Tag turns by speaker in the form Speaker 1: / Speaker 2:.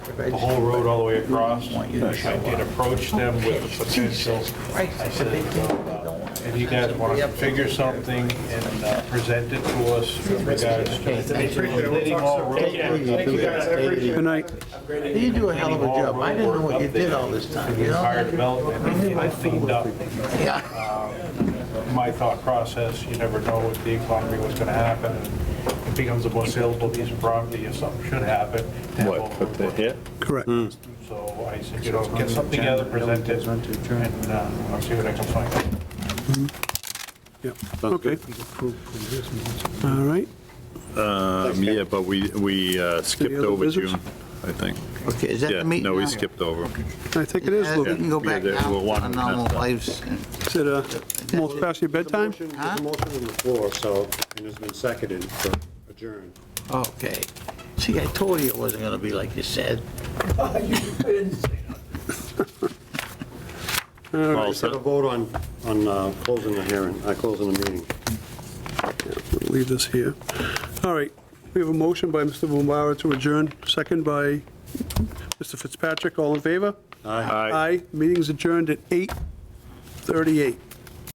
Speaker 1: the whole road all the way across. I did approach them with the potential. I said, if you guys want to figure something and uh, present it to us with regards to completing all road work.
Speaker 2: Good night.
Speaker 3: You do a hell of a job. I didn't know what you did all this
Speaker 1: for
Speaker 3: time,
Speaker 1: the
Speaker 3: you know?
Speaker 1: entire development, and get it cleaned up.
Speaker 3: Yeah.
Speaker 1: My thought process, you never know with the economy what's going to happen. It becomes a more saleable piece of property if something should happen. to have all
Speaker 4: What, put
Speaker 1: road
Speaker 4: the
Speaker 1: work.
Speaker 4: hit?
Speaker 2: Correct.
Speaker 4: Hmm.
Speaker 1: So I said, you know, get something together, present it, and uh, I'll see what I can find.
Speaker 2: Yep. Okay. All right.
Speaker 4: Um, Yeah, but we, we uh, skipped
Speaker 2: Any other
Speaker 4: over
Speaker 2: business?
Speaker 4: June, I think.
Speaker 3: Okay, is that
Speaker 4: Yeah,
Speaker 3: the meeting?
Speaker 4: no, we
Speaker 3: now?
Speaker 4: skipped over.
Speaker 2: I think it is,
Speaker 3: Uh, We
Speaker 2: Luke.
Speaker 3: can go back
Speaker 4: Yeah,
Speaker 3: now
Speaker 4: we're
Speaker 3: to
Speaker 4: one
Speaker 3: our normal
Speaker 4: minute.
Speaker 3: lives.
Speaker 2: Is it, uh, almost past your bedtime?
Speaker 5: There's
Speaker 3: Huh?
Speaker 5: a motion on the floor, so, and it's been seconded for adjourn.
Speaker 3: Okay. See, I told you it wasn't gonna be like you said.
Speaker 4: All
Speaker 5: Let's have a
Speaker 4: set?
Speaker 5: vote on, on uh, closing the hearing, uh, closing the meeting.
Speaker 2: Leave this here. All right. We have a motion by Mr. Bombara to adjourn, second by Mr. Fitzpatrick. All in favor?
Speaker 4: Aye.
Speaker 2: Aye. Meeting's adjourned at 8:38.